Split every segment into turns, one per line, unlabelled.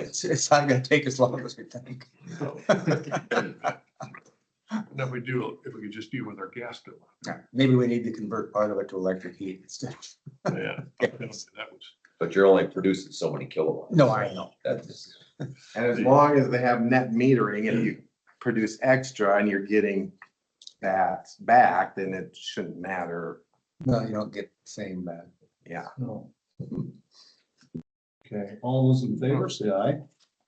It's, it's not gonna take as long as we think.
No. And Then we do, if we could just deal with our gas bill.
Yeah, Maybe we need to convert part of it to electric heat instead.
Yeah. That was,
But you're only producing so many kilowatts.
No, I know.
That's,
And as long as they have net metering and you produce extra and you're getting that back, then it shouldn't matter.
No, you don't get the same, uh,
Yeah.
No. Okay, all those in favor, say aye.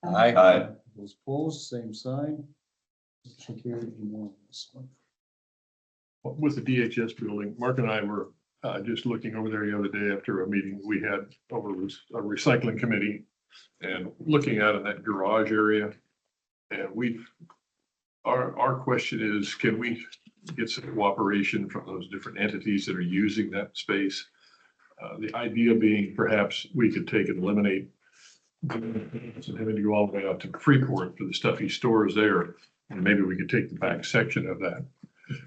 I,
I,
Those opposed, same sign. Motion carried unanimously.
with the DHS building, Mark and I were uh, just looking over there the other day after a meeting we had over with a recycling committee and looking out in that garage area. And we, our, our question is, can we get some cooperation from those different entities that are using that space? Uh, The idea being perhaps we could take and eliminate and having to go all the way out to Freeport for the stuff he stores there. And maybe we could take the back section of that,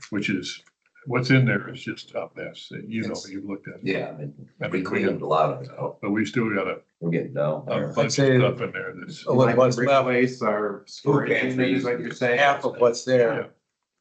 which is, what's in there is just a mess. You know,
Yes.
you've looked at. it.
yeah, I mean,
I mean,
we
we
cleaned
have-
a lot of it out.
But we still got a-
We're getting down
a
there.
bunch of
say-
stuff in there that's,
Oh, what
Like
was left?
Replace our storage
pantry.
units, like you're saying.
half of what's
Yeah.
there,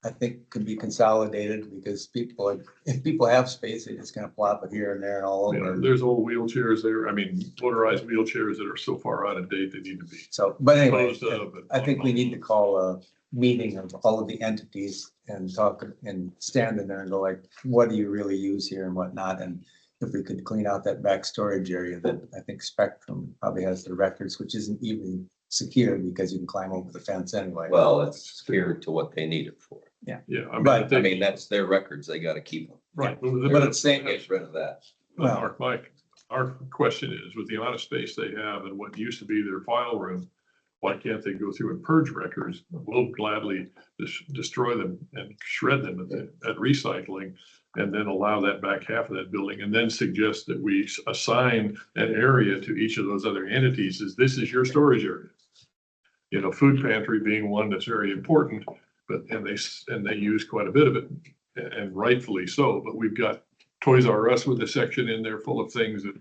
I think could be consolidated because people, are- if people have space, they just kind of plop it here and there and all
you know,
over.
there's old wheelchairs there. I mean, motorized wheelchairs that are so far out of date, they need to be.
So, but anyway,
disposed of and-
I think we need to call a meeting of all of the entities and talk and stand in there and go like, what do you really use here and whatnot? And if we could clean out that back storage area, then I think Spectrum probably has their records, which isn't even secure because you can climb over the fence anyway.
Well, it's clear to what they need it for.
Yeah, I mean,
Right,
I
I
I
think-
mean, that's their records. They gotta keep them.
right.
But it's saying,
Get rid of that.
well-
Mark, Mike, our question is, with the amount of space they have and what used to be their file room, why can't they go through and purge records? We'll gladly dis- destroy them and shred them at, the- at recycling and then allow that back half of that building and then suggest that we s- assign an area to each of those other entities is this is your storage area. You know, food pantry being one that's very important, but, and they, s- and they use quite a bit of it a- and rightfully so, but we've got Toys R Us with a section in there full of things that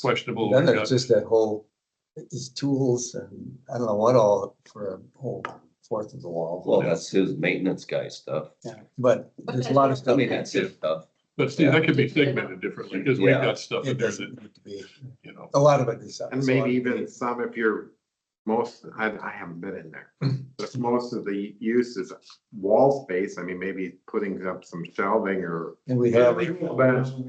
questionable.
Then
We've
there's
got-
just that whole, these tools and I don't know what all for a whole fourth of the wall.
Well, that's his maintenance guy stuff.
But there's a lot of
I
stuff.
mean, that's his stuff.
But Steve, that could be segmented differently because we've
Yeah.
got stuff in
It
there
doesn't
that,
need to be,
you know,
a lot of it is.
And maybe even some if you're most, I, I haven't been in there. But most of the use is wall space. I mean, maybe putting up some shelving or,
And we have.
but,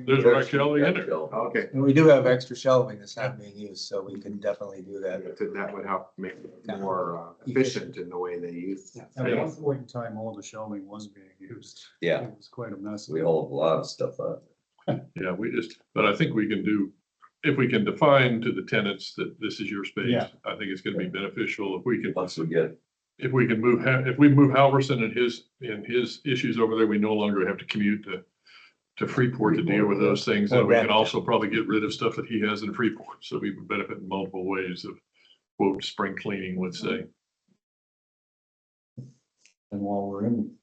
there's actually in there.
okay,
And we do have extra shelving that's not being used, so we can definitely do that.
that would help make it more uh, efficient in the way they use.
At one point in time, all the shelving was being used.
Yeah,
It was quite a mess.
we hold a lot of stuff up.
Yeah, we just, but I think we can do, if we can define to the tenants that this is your space,
Yeah.
I think it's going to be beneficial if we can,
Once we get,
if we can move, Ha- if we move Halverson and his, and his issues over there, we no longer have to commute to, to Freeport to deal with those things. And we can also probably get rid of stuff that he has in Freeport. So we would benefit in multiple ways of quote, spring cleaning, let's say.
And while we're in.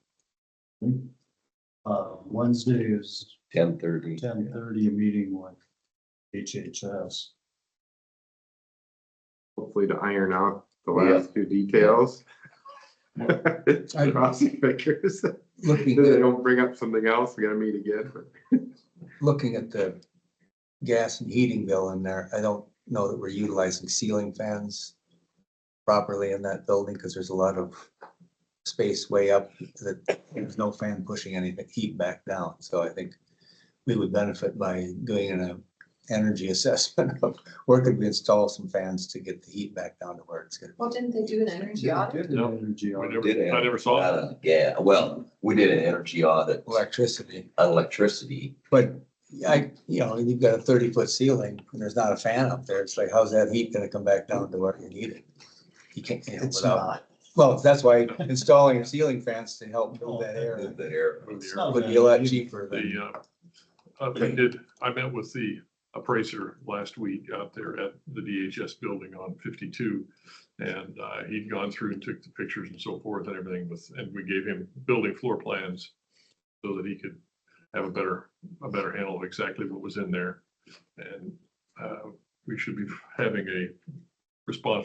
Uh, Wednesday is
ten thirty.
ten thirty, a meeting with HHS.
hopefully to iron out the
Yeah.
last few details.
I-
Crossing fingers, that they
Looking,
don't bring up something else, we gotta meet again.
looking at the gas and heating bill in there, I don't know that we're utilizing ceiling fans properly in that building, because there's a lot of space way up that there's no fan pushing anything, heat back down. So I think we would benefit by doing an uh, energy assessment of where could we install some fans to get the heat back down to where it's gonna.
Well, didn't they do an energy audit?
Did
No.
an Energy
We
audit.
never,
Did it.
I never saw that.
Yeah, well, we did an energy audit on
Electricity.
electricity.
But I, you know, you've got a thirty foot ceiling and there's not a fan up there. It's like, how's that heat gonna come back down to where you need it? You can't, you know,
It's
without,
not.
well, that's why installing ceiling fans to help move that air
Move that air.
It's not
would
that
be a lot
easy.
cheaper than,
The, uh, uh, we did, I met with the appraiser last week out there at the DHS building on fifty-two. And, uh, he'd gone through and took the pictures and so forth and everything with, and we gave him building floor plans so that he could have a better, a better handle of exactly what was in there. And, uh, we should be having a response